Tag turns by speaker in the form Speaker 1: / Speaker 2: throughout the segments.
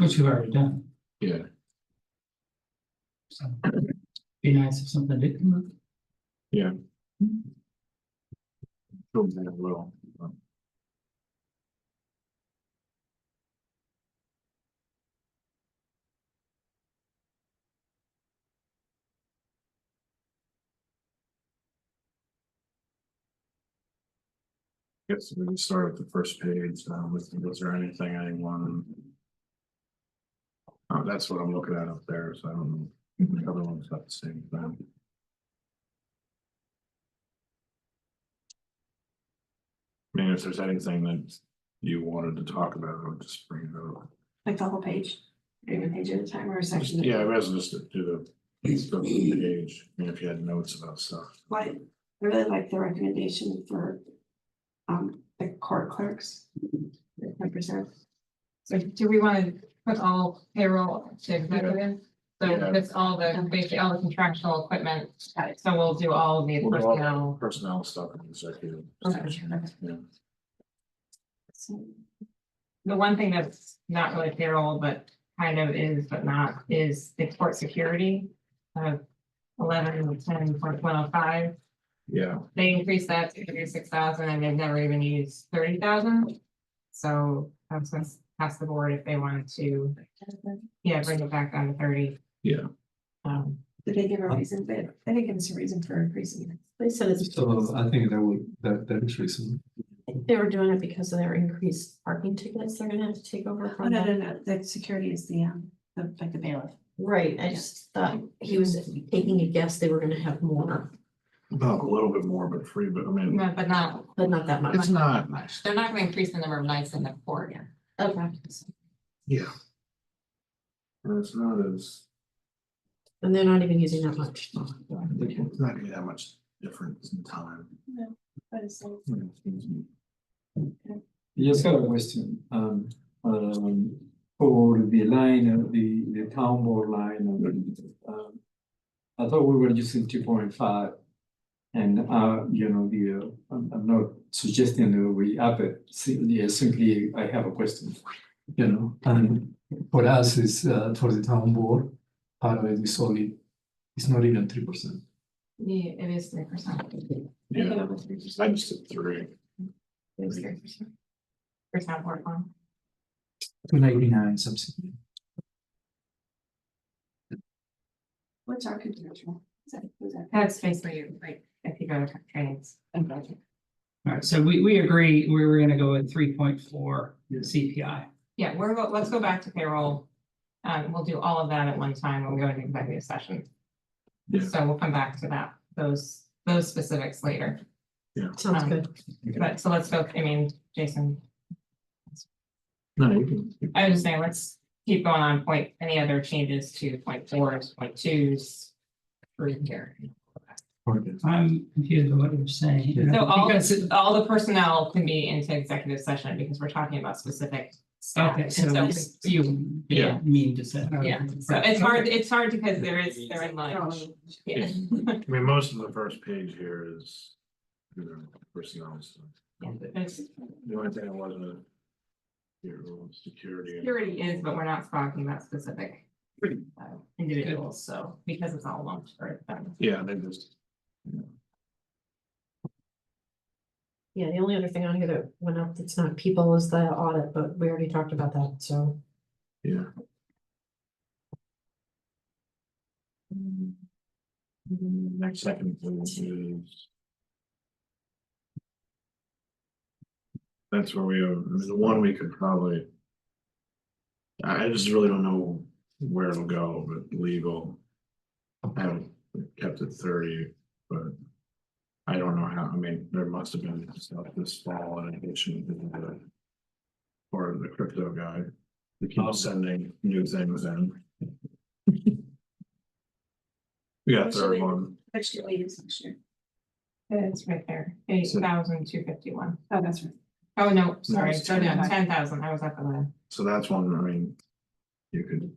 Speaker 1: Which we've already done,
Speaker 2: Yeah,
Speaker 1: so. Be nice if something did come up.
Speaker 2: prove that it will. um, Guess we can start at the first page, um, was, was there anything anyone? Oh, that's what I'm looking at up there, so I don't know, if the other one's not the same thing. I mean, if there's anything that you wanted to talk about, I'll just bring it up.
Speaker 3: Like the whole page, or even page at a time or a
Speaker 2: Just-
Speaker 3: section. at a
Speaker 2: Yeah, I
Speaker 3: time.
Speaker 2: was just do the, just go through the page, and if you had notes about stuff.
Speaker 3: Why- I really like the recommendation for um the court clerks. Like reserve,
Speaker 4: So do we want to put all payroll to executive? So
Speaker 2: Yeah.
Speaker 4: that's all the, basically all the contractual equipment,
Speaker 3: Got
Speaker 4: so we'll do all the
Speaker 2: We'll do all-
Speaker 4: personnel.
Speaker 2: Personnel stuff and executive.
Speaker 4: Okay.
Speaker 2: Yeah.
Speaker 3: so
Speaker 4: The one thing that's not really payroll, but kind of is, but not, is the port security. Uh, eleven, ten, point one oh five,
Speaker 2: Yeah,
Speaker 4: they increased that to thirty-six thousand and they've never even used thirty thousand. So that's gonna pass the board if they wanted to, yeah, bring it back down to thirty.
Speaker 2: Yeah.
Speaker 4: Um,
Speaker 3: did they give a reason, but I think it's a reason for increasing it.
Speaker 5: They said it's,
Speaker 6: So I think that would, that, that is reasonable.
Speaker 5: they were doing it because of their increased parking tickets, they're gonna have to take over
Speaker 3: Oh,
Speaker 5: from
Speaker 3: no, no,
Speaker 5: that.
Speaker 3: no, the security is the um, the like the bailiff.
Speaker 5: Right, I just thought he was taking a guess they were gonna have more,
Speaker 2: about a little bit more, but free, but I mean,
Speaker 4: no, but not,
Speaker 5: but not that much.
Speaker 2: it's not nice.
Speaker 4: they're not gonna increase the number of nights in the court.
Speaker 5: Okay.
Speaker 2: Yeah. And It's not as,
Speaker 5: And they're not even using that much.
Speaker 2: it's not gonna be that much difference in time.
Speaker 3: But it's like,
Speaker 6: You just got a question, um, um, for the line of the, the town board line of, um. I thought we were using two point five. And, uh, you know, the, uh, I'm, I'm not suggesting that we up it, simply, simply I have a question. You know, and for us is, uh, for the town board, part of it is only, it's not even three percent.
Speaker 4: Yeah, it is three percent.
Speaker 2: Yeah, I just did three.
Speaker 4: It is three percent. Percent work on.
Speaker 6: Two ninety-nine something.
Speaker 3: what's our control? Is that, is that?
Speaker 4: That's basically like, if you go to trainings.
Speaker 1: All right, so we, we agree, we were gonna go with three point four
Speaker 6: Yeah.
Speaker 1: CPI.
Speaker 4: Yeah, we're, go- let's go back to payroll. Um, we'll do all of that at one time when we go into executive session.
Speaker 2: Yeah.
Speaker 4: So we'll come back to that, those, those specifics later,
Speaker 5: Sounds good.
Speaker 4: but so let's go, I mean, Jason,
Speaker 2: No, you can. you
Speaker 4: I was just saying, let's keep going on point, any other changes to point fours, point twos. Through here.
Speaker 2: can-
Speaker 1: I'm confused with what you're saying.
Speaker 4: So all,
Speaker 1: Because it-
Speaker 4: all the personnel can be into executive session because we're talking about specific staff.
Speaker 1: Okay,
Speaker 4: And
Speaker 1: so
Speaker 4: so-
Speaker 1: it's- you
Speaker 4: Yeah.
Speaker 1: mean to say.
Speaker 4: Yeah, so it's hard, it's hard because there is, they're
Speaker 1: Oh,
Speaker 4: in
Speaker 3: Oh,
Speaker 4: like, yeah,
Speaker 2: I mean, most of the first page here is, you know, personnel stuff.
Speaker 4: it's,
Speaker 2: The only thing that wasn't a your own security. and-
Speaker 4: security is, but we're not talking about specific uh, individuals, so because it's all lumped for them.
Speaker 2: Yeah, they just,
Speaker 5: Yeah, the only other thing on here that went up, that's not people is the audit, but we already talked about that, so.
Speaker 2: yeah.
Speaker 4: Mm-hmm.
Speaker 2: Next second page is. That's where we are, I mean, the one we could probably. I I just really don't know where it'll go, but legal. I haven't kept it thirty, but. I don't know how, I mean, there must have been stuff this fall in addition to the. Or the crypto guy, they
Speaker 6: Oh.
Speaker 2: keep sending new things in. We got a third one,
Speaker 3: Which do we use next year?
Speaker 4: It's right there, eight thousand two fifty-one.
Speaker 3: Oh, that's right.
Speaker 4: Oh, no, sorry,
Speaker 2: it's
Speaker 4: go down,
Speaker 3: 10,000.
Speaker 4: ten thousand, I was up eleven.
Speaker 2: so that's one, I mean. You could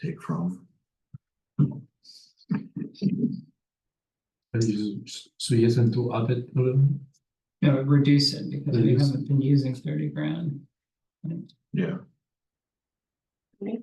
Speaker 2: take from.
Speaker 6: And you s- suggest them to up it a little?
Speaker 1: No, reduce it because we
Speaker 6: Reduce.
Speaker 1: haven't been using thirty grand.
Speaker 2: Yeah,
Speaker 3: right?